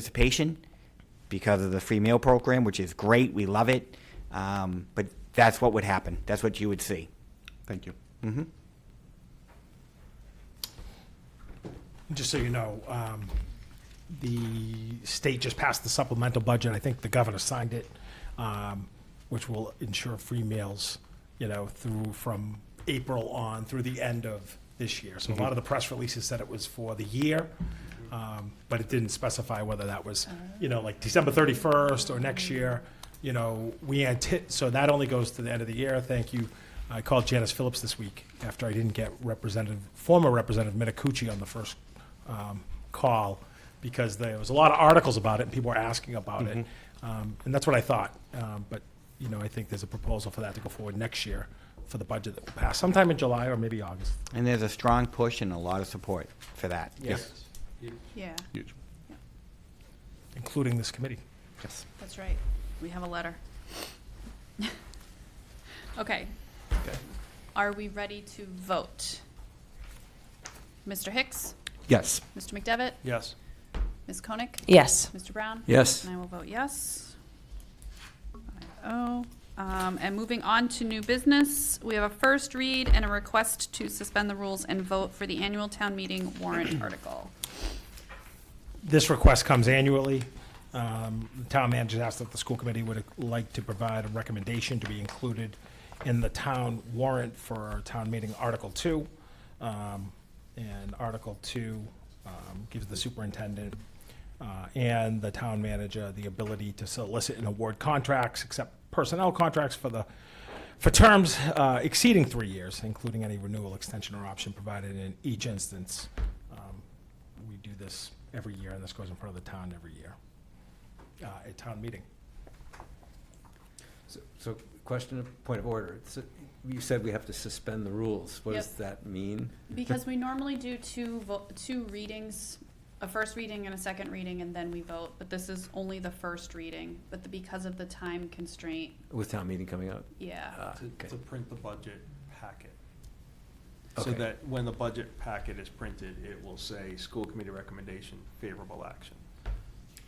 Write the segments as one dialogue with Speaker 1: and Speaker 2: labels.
Speaker 1: participation because of the free meal program, which is great. We love it. Um, but that's what would happen. That's what you would see.
Speaker 2: Thank you.
Speaker 3: Just so you know, um, the state just passed the supplemental budget. I think the governor signed it, um, which will ensure free meals, you know, through, from April on through the end of this year. So a lot of the press releases said it was for the year, um, but it didn't specify whether that was, you know, like December 31st or next year. You know, we anti, so that only goes to the end of the year. Thank you. I called Janice Phillips this week after I didn't get Representative, former Representative Minicucci on the first um, call because there was a lot of articles about it and people were asking about it. Um, and that's what I thought. Um, but, you know, I think there's a proposal for that to go forward next year for the budget that will pass sometime in July or maybe August.
Speaker 1: And there's a strong push and a lot of support for that.
Speaker 3: Yes.
Speaker 4: Yeah,
Speaker 2: Huge.
Speaker 3: Including this committee.
Speaker 2: Yes.
Speaker 4: that's right. We have a letter. Okay. Are we ready to vote? Mr. Hicks?
Speaker 2: Yes.
Speaker 4: Mr. McDevitt?
Speaker 3: Yes.
Speaker 4: Ms. Koenig?
Speaker 5: Yes.
Speaker 4: Mr. Brown?
Speaker 2: Yes.
Speaker 4: And I will vote yes. Five Oh, um, and moving on to new business, we have a first read and a request to suspend the rules and vote for the annual town meeting warrant article.
Speaker 3: This request comes annually. Um, The town manager asked that the school committee would like to provide a recommendation to be included in the town warrant for our town meeting Article Two. Um, And Article Two um, gives the superintendent uh, and the town manager the ability to solicit and award contracts, except personnel contracts for the for terms uh, exceeding three years, including any renewal, extension, or option provided in each instance. Um, We do this every year, and this goes in front of the town every year, uh, at town meeting.
Speaker 6: So- So, question of, point of order. So, You said we have to suspend the rules. What does
Speaker 4: Yep.
Speaker 6: that mean?
Speaker 4: Because we normally do two vo- two readings, a first reading and a second reading, and then we vote, but this is only the first reading, but the, because of the time constraint,
Speaker 6: With town meeting coming up?
Speaker 4: yeah.
Speaker 6: Ah,
Speaker 7: to,
Speaker 6: okay.
Speaker 7: to print the budget packet. So
Speaker 6: Okay.
Speaker 7: that when the budget packet is printed, it will say, school committee recommendation, favorable action.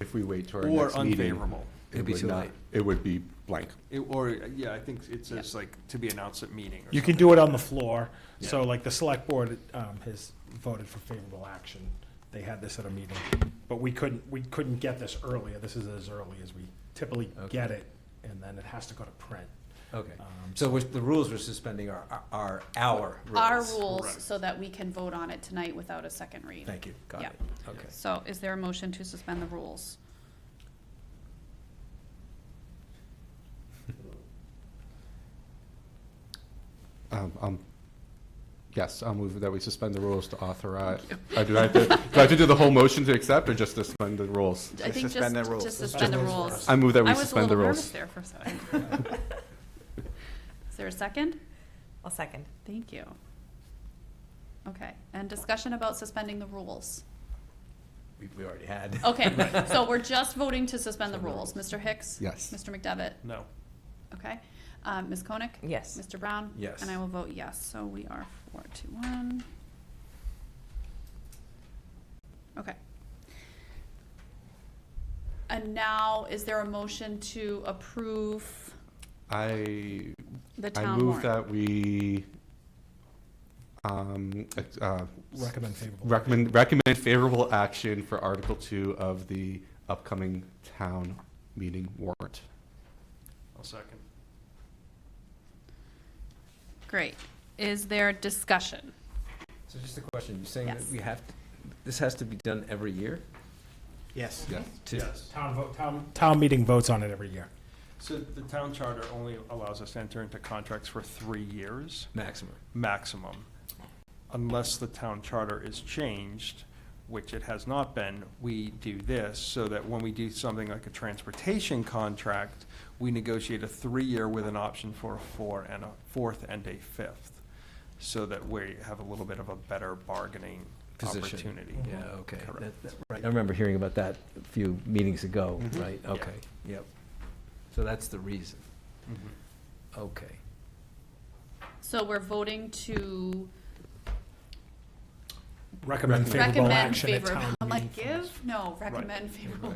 Speaker 2: If we wait till our
Speaker 7: Or
Speaker 2: next meeting.
Speaker 7: unfavorable.
Speaker 2: it
Speaker 6: It'd be
Speaker 2: would
Speaker 6: too
Speaker 2: not-
Speaker 6: late.
Speaker 2: It would be blank.
Speaker 7: It, or, yeah, I think it says like, to be announced at meeting or
Speaker 3: You can
Speaker 7: something.
Speaker 3: do it on the floor, so like the select board um, has voted for favorable action. They had this at a meeting, but we couldn't, we couldn't get this earlier. This is as early as we typically get it, and then it has to go to print.
Speaker 6: Okay.
Speaker 3: Um,
Speaker 6: So we're- the rules we're suspending are, are our rules?
Speaker 4: Our rules,
Speaker 7: Correct.
Speaker 4: so that we can vote on it tonight without a second read.
Speaker 6: Thank you. Got
Speaker 4: Yeah.
Speaker 6: it. Okay.
Speaker 4: So is there a motion to suspend the rules?
Speaker 2: Um, um, Yes, I'll move that we suspend the rules to authorize. I Do I have to- do I have to do the whole motion to accept or just suspend the rules?
Speaker 4: I think just,
Speaker 1: suspend the rules.
Speaker 4: just suspend the rules.
Speaker 2: I move that we
Speaker 4: I was a
Speaker 2: suspend
Speaker 4: little
Speaker 2: the
Speaker 4: nervous
Speaker 2: rules.
Speaker 4: there for a second. Is there a second?
Speaker 5: I'll second.
Speaker 4: Thank you. Okay, and discussion about suspending the rules.
Speaker 6: We- We already had.
Speaker 4: Okay, so we're just voting to suspend the rules. Mr. Hicks?
Speaker 2: Yes.
Speaker 4: Mr. McDevitt?
Speaker 7: No.
Speaker 4: Okay. Um, Ms. Koenig?
Speaker 5: Yes.
Speaker 4: Mr. Brown?
Speaker 6: Yes.
Speaker 4: And I will vote yes, so we are four to one. Okay. And now, is there a motion to approve
Speaker 2: I,
Speaker 4: the
Speaker 2: I
Speaker 4: town warrant?
Speaker 2: move that we um, ex- uh,
Speaker 3: Recommend favorable.
Speaker 2: recommend, recommend favorable action for Article 2 of the upcoming town meeting warrant.
Speaker 7: I'll second.
Speaker 4: Great. Is there discussion?
Speaker 6: So just a question. You're saying that
Speaker 4: Yes.
Speaker 6: we have, to- this has to be done every year?
Speaker 1: Yes.
Speaker 2: Yes.
Speaker 6: to-
Speaker 3: Town vote, town, town meeting votes on it every year.
Speaker 7: So the town charter only allows us to enter into contracts for three years.
Speaker 6: Maximum.
Speaker 7: maximum, unless the town charter is changed, which it has not been, we do this, so that when we do something like a transportation contract, we negotiate a three-year with an option for a four and a fourth and a fifth, so that we have a little bit of a better bargaining
Speaker 6: Position.
Speaker 7: opportunity. Mm-hmm.
Speaker 6: Yeah, okay.
Speaker 7: Correct. Mm-hmm.
Speaker 6: That- that- right. I remember hearing about that a few meetings ago, right? Okay, yep. So that's the reason.
Speaker 7: Mhm.
Speaker 6: Okay.
Speaker 4: So we're voting to
Speaker 3: recommend favorable
Speaker 4: Recommend
Speaker 3: action at
Speaker 4: favorable,
Speaker 3: town
Speaker 4: I'm
Speaker 3: meeting.
Speaker 4: like, give? No, recommend favorable